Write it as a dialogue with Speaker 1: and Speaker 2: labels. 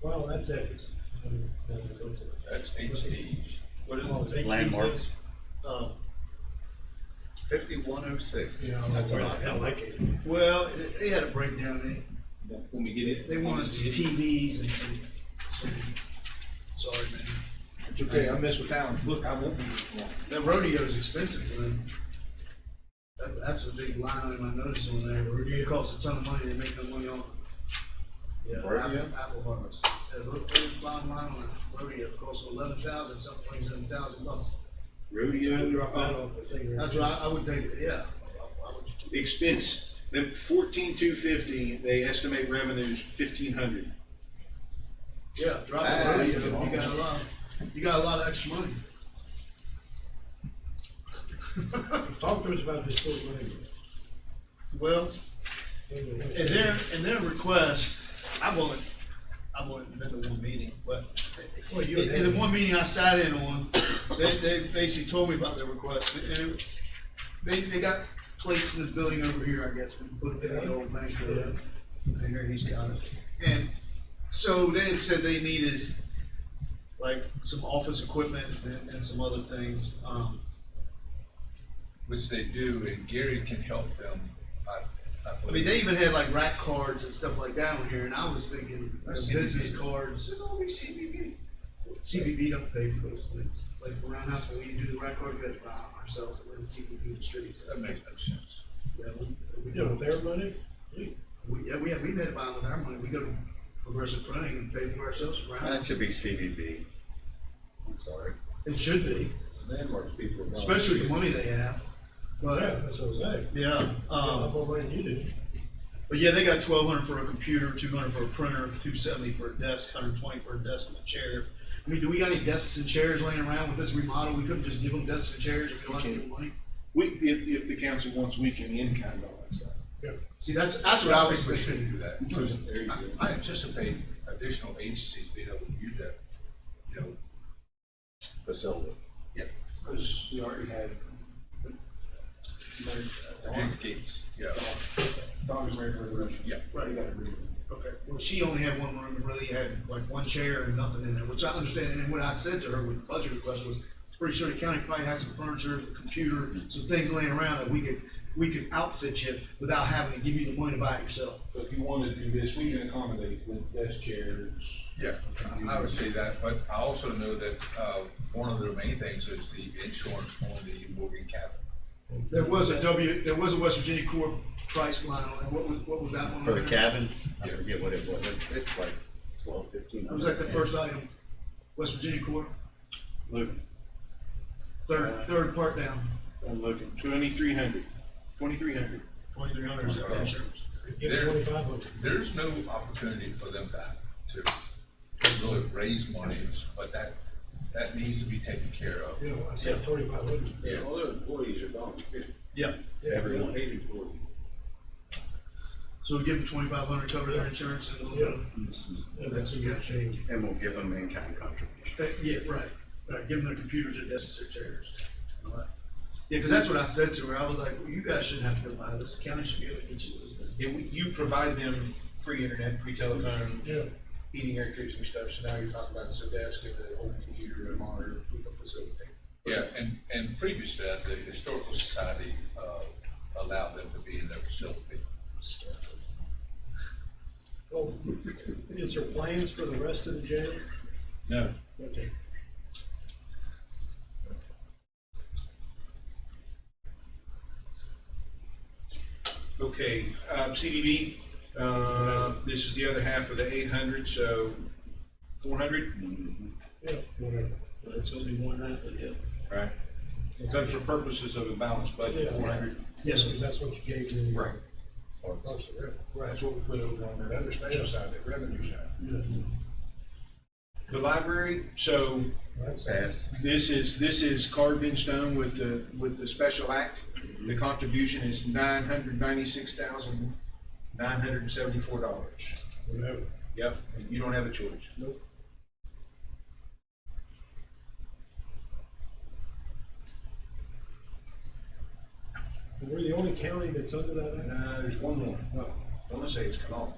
Speaker 1: Well, that's it.
Speaker 2: That's HDs. What is it?
Speaker 3: Landmarks.
Speaker 1: Um,
Speaker 3: Fifty-one oh six.
Speaker 1: you know,
Speaker 3: That's
Speaker 1: where
Speaker 3: what
Speaker 1: the
Speaker 3: I
Speaker 1: hell I
Speaker 3: like.
Speaker 1: came. Well, it- they had a breakdown,
Speaker 4: When we get
Speaker 1: they,
Speaker 4: it.
Speaker 1: they want us to TVs and some, some, sorry, man.
Speaker 4: It's okay, I mess with Alan. Look, I won't be long.
Speaker 1: That rodeo's expensive for them. That, that's a big line item I noticed on there, rodeo costs a ton of money, they make no money on it. Yeah,
Speaker 3: Rodeo?
Speaker 1: apple, apple harvest. Yeah, ro- ro- bottom line on it, rodeo costs eleven thousand, some places eleven thousand bucks.
Speaker 5: rodeo drop
Speaker 1: Right
Speaker 5: out,
Speaker 1: off the thing. That's right, I would think, yeah. I- I would-
Speaker 5: expense, then fourteen two fifty, they estimate revenues fifteen hundred.
Speaker 1: Yeah, drop
Speaker 3: Ah,
Speaker 1: the
Speaker 3: that's
Speaker 1: rodeo, you got a lot, you got a lot of extra money.
Speaker 6: Talk to us about this full money.
Speaker 1: Well, in their, in their request, I won't, I won't been to one meeting, but
Speaker 6: Well, you-
Speaker 1: in, in the one meeting I sat in on, they, they basically told me about their request. And it- They, they got placed in this building over here, I guess, we put it in the old bank building. I hear he's got it. And so they had said they needed like some office equipment and, and some other things. Um,
Speaker 2: Which they do, and Gary can help them. I-
Speaker 1: I mean, they even had like rack cards and stuff like that on here, and I was thinking, you know, business cards. CBB don't pay for those things. Like around house, when we do the rack cards, we have to buy them ourselves, and then CBB distributes
Speaker 2: That
Speaker 1: them.
Speaker 2: makes no sense.
Speaker 1: Yeah, we- we
Speaker 6: You know,
Speaker 1: don't-
Speaker 6: their money,
Speaker 1: we- Yeah, we, we've had to buy them with our money. We go to Progressive Printing and pay for ourselves around.
Speaker 3: That should be CBB. I'm sorry.
Speaker 1: It should be,
Speaker 3: Landmarks people. are not-
Speaker 1: especially with the money they have.
Speaker 6: Oh, yeah,
Speaker 1: But,
Speaker 6: that's what I was saying.
Speaker 1: yeah,
Speaker 6: How
Speaker 1: um,
Speaker 6: much money you did?
Speaker 1: But yeah, they got twelve hundred for a computer, two hundred for a printer, two seventy for a desk, hundred twenty for a desk and a chair. I mean, do we got any desks and chairs laying around with this remodel? We couldn't just give them desks and chairs if we don't have to give them money?
Speaker 5: We, if, if the council wants, we can in kind of all that stuff.
Speaker 1: See, that's, that's what I was
Speaker 2: We
Speaker 1: thinking.
Speaker 2: shouldn't do that.
Speaker 3: There you go.
Speaker 2: I anticipate additional agencies being able to use that, you know,
Speaker 3: Facility.
Speaker 4: Because we already had.
Speaker 2: Virginia Gates, yeah.
Speaker 4: Dog is married for the rest.
Speaker 2: Yeah.
Speaker 4: Right, you gotta agree with me.
Speaker 1: Okay. Well, she only had one room and really had like one chair and nothing in there, which I understand. And what I said to her with the budget request was, pretty sure the county probably has some furniture, a computer, some things laying around that we could, we could outfit you without having to give you the money to buy it yourself.
Speaker 4: So if you wanted to do this, we can accommodate with desk chairs.
Speaker 2: Yeah, I would say that, but I also know that, uh, one of the main things is the insurance on the Morgan Capital.
Speaker 1: There was a W, there was a West Virginia Corp price line on it. What was, what was that one?
Speaker 3: For the
Speaker 1: on there?
Speaker 3: cabin, I
Speaker 2: Yeah.
Speaker 3: forget what it was. It's, it's like twelve, fifteen.
Speaker 1: It was like the first item, West Virginia Corp,
Speaker 5: Look,
Speaker 1: third, third part down.
Speaker 5: I'm looking, twenty-three hundred, twenty-three hundred.
Speaker 1: Twenty-three hundred is their insurance.
Speaker 6: Get
Speaker 2: There.
Speaker 6: twenty-five hundred.
Speaker 2: There's no opportunity for them to, to really raise monies, but that, that needs to be taken care of.
Speaker 6: You know, I said twenty-five hundred.
Speaker 2: Yeah.
Speaker 4: All their employees are gone.
Speaker 1: Yeah,
Speaker 3: Everyone.
Speaker 4: Paid employees.
Speaker 1: so we give them twenty-five hundred, cover their insurance and a little
Speaker 6: Yeah.
Speaker 1: bit. of-
Speaker 6: And that's a good change.
Speaker 3: And we'll give them in-kind contribution.
Speaker 1: Uh, Yeah, right, right, give them their computers and desks and chairs. All right. Yeah, because that's what I said to her, I was like, well, you guys shouldn't have to go buy this, the county should be able to get you those things.
Speaker 7: Yeah, we, you provide them free internet, free telephone,
Speaker 6: Yeah.
Speaker 7: heating, air conditioning stuff, so now you're talking about some desk and a whole computer and monitor, we can facilitate.
Speaker 2: Yeah, and, and previous to that, the Historical Society, uh, allowed them to be in their facility.
Speaker 6: Well, is there plans for the rest of the jail?
Speaker 5: No.
Speaker 6: Okay.
Speaker 5: Okay, um, CDB, uh, this is the other half of the eight hundred, so four hundred?
Speaker 6: Yeah, whatever.
Speaker 1: But it's gonna be one night, but yeah.
Speaker 5: Right. So for purposes of a balanced budget,
Speaker 6: Yeah.
Speaker 5: four hundred.
Speaker 6: Yes, because that's what you gave me.
Speaker 5: Right.
Speaker 6: Or close to that.
Speaker 7: Right, that's what we put over on that other special side, that revenue side.
Speaker 5: The library, so
Speaker 6: That's
Speaker 3: Pass.
Speaker 5: This is, this is carved in stone with the, with the special act. The contribution is nine hundred ninety-six thousand, nine hundred and seventy-four dollars.
Speaker 6: whatever.
Speaker 5: Yep, and you don't have a choice.
Speaker 6: Nope. We're the only county that's under that. act?
Speaker 5: Uh, there's one more.
Speaker 6: No.
Speaker 5: I want to say it's Canal.